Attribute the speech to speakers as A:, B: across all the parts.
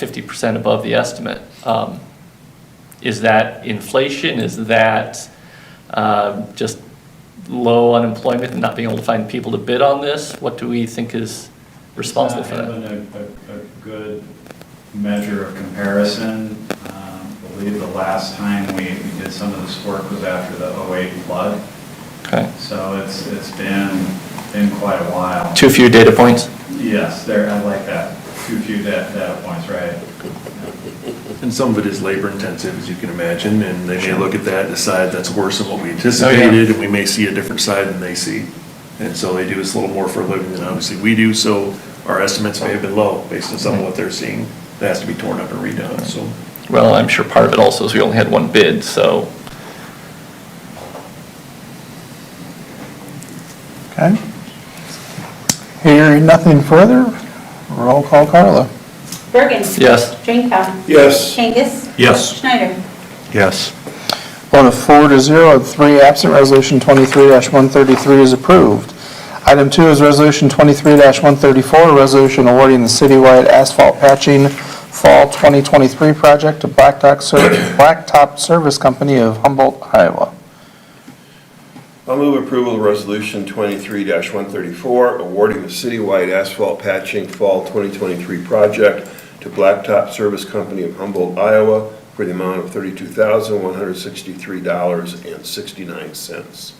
A: fifty percent above the estimate. Um, Is that inflation? Is that um, just low unemployment and not being able to find people to bid on this? What do we think is responsible for that?
B: Not having a, a, a good measure of comparison. Um, I believe the last time we we did some of this work was after the 08 flood,
A: Okay.
B: so it's, it's been, been quite a while.
A: Too few data points?
B: Yes, there, I like that, too few data, data points, right?
C: And some of it is labor intensive, as you can imagine, and they may look at that and decide that's worse than what we anticipated, and we may see a different side than they see. And so they do this a little more for a living than obviously we do, so our estimates may have been low based on some of what they're seeing. That has to be torn up and redone, so.
A: Well, I'm sure part of it also is we only had one bid, so
D: Okay. Hearing nothing further, roll call Carla.
E: Bergen.
A: Yes.
E: Drinkow.
C: Yes.
E: Kangas.
C: Yes.
E: Schneider.
C: Yes.
D: Vote of four to zero, three absent, Resolution 23-133 is approved. Item two is Resolution 23-134, a resolution awarding the citywide asphalt patching Fall 2023 project to Blacktop Ser- Blacktop Service Company of Humboldt, Iowa.
F: I'll move approval of Resolution 23-134, awarding the citywide asphalt patching Fall 2023 project to Blacktop Service Company of Humboldt, Iowa, for the amount of $32,163.69.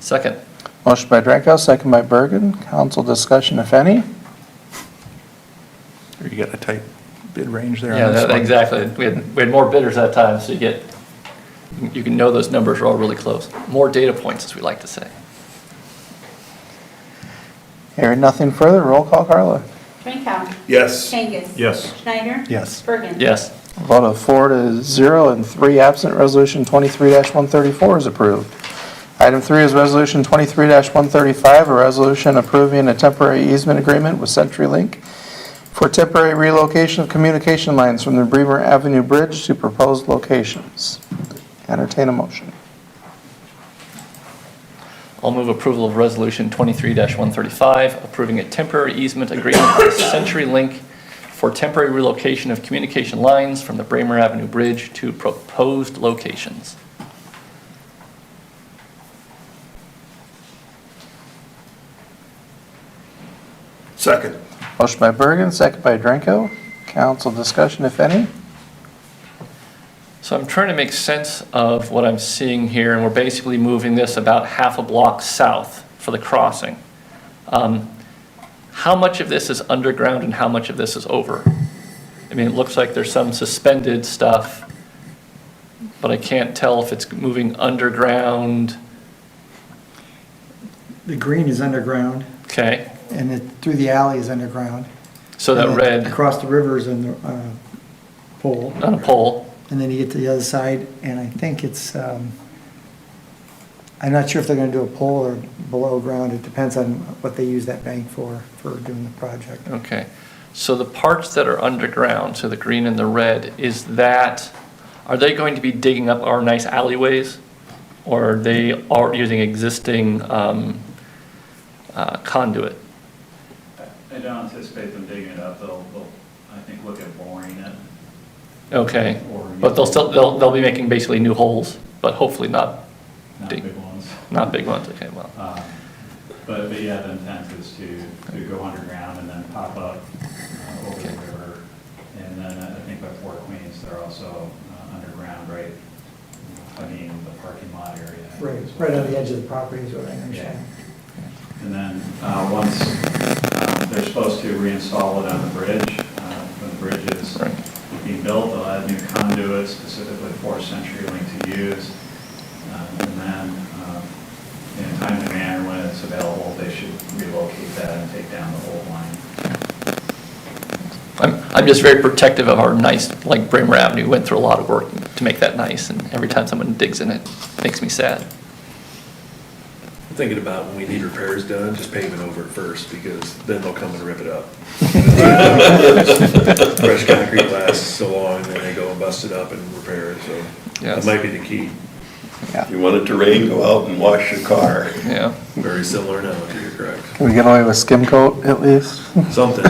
A: second.
D: Motion by Drankow, second by Bergen. Council discussion, if any.
C: You got a tight bid range there
A: Yeah, that- exactly. We had, we had more bidders that time, so you get, you can know those numbers are all really close. More data points, as we like to say.
D: Hearing nothing further, roll call Carla.
E: Drinkow.
F: Yes.
E: Kangas.
C: Yes.
E: Schneider.
C: Yes.
E: Bergen.
A: Yes.
D: Vote of four to zero and three absent, Resolution 23-134 is approved. Item three is Resolution 23-135, a resolution approving a temporary easement agreement with CenturyLink for temporary relocation of communication lines from the Bremer Avenue Bridge to proposed locations. Entertain a motion.
A: I'll move approval of Resolution 23-135, approving a temporary easement agreement with CenturyLink for temporary relocation of communication lines from the Bramer Avenue Bridge to proposed locations.
F: Second.
D: Motion by Bergen, second by Drenko. Council discussion, if any.
A: So I'm trying to make sense of what I'm seeing here, and we're basically moving this about half a block south for the crossing. Um, How much of this is underground and how much of this is over? I mean, it looks like there's some suspended stuff, but I can't tell if it's moving underground,
G: The green is underground,
A: okay?
G: and it, through the alley is underground.
A: So that
G: And then
A: red Oh.
G: Across the river is on the, on a pole,
A: on a pole,
G: and then you get to the other side, and I think it's, um, I'm not sure if they're gonna do a pole or below ground, it depends on what they use that bank for, for doing the project.
A: okay. So the parts that are underground, so the green and the red, is that, are they going to be digging up our nice alleyways? Or are they are using existing um, uh, conduit?
B: I don't anticipate them digging it up, they'll, they'll, I think, look at boring it.
A: Okay,
B: Or-
A: but they'll still, they'll, they'll be making basically new holes, but hopefully not,
B: not
A: Dig.
B: big ones.
A: not big ones, okay, well.
B: Um, But, but yeah, the intent is to, to go underground and then pop up uh, over the river. And then I think by Fort Queens, they're also uh, underground, right? I mean, the parking lot area.
G: Right, right on the edge of the property is what I understand.
B: And then, uh, once, um, they're supposed to reinstall it on the bridge, uh, when the bridge is
A: Right.
B: being built, they'll add new conduits specifically for CenturyLink to use. Uh, And then, um, in time and manner, when it's available, they should relocate that and take down the old line.
A: I'm, I'm just very protective of our nice, like Bramer Avenue went through a lot of work to make that nice, and every time someone digs in it, makes me sad.
C: Thinking about when we need repairs done, just pave it over it first, because then they'll come and rip it up. Fresh concrete lasts so long, then they go and bust it up and repair it, so
A: Yes.
C: that might be the key.
F: If you want it to rain, go out and wash your car.
A: Yeah.
C: Very similar now, if you're correct.
D: Can we get away with skim coat at least?
C: Something,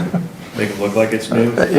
C: make it look like it's new.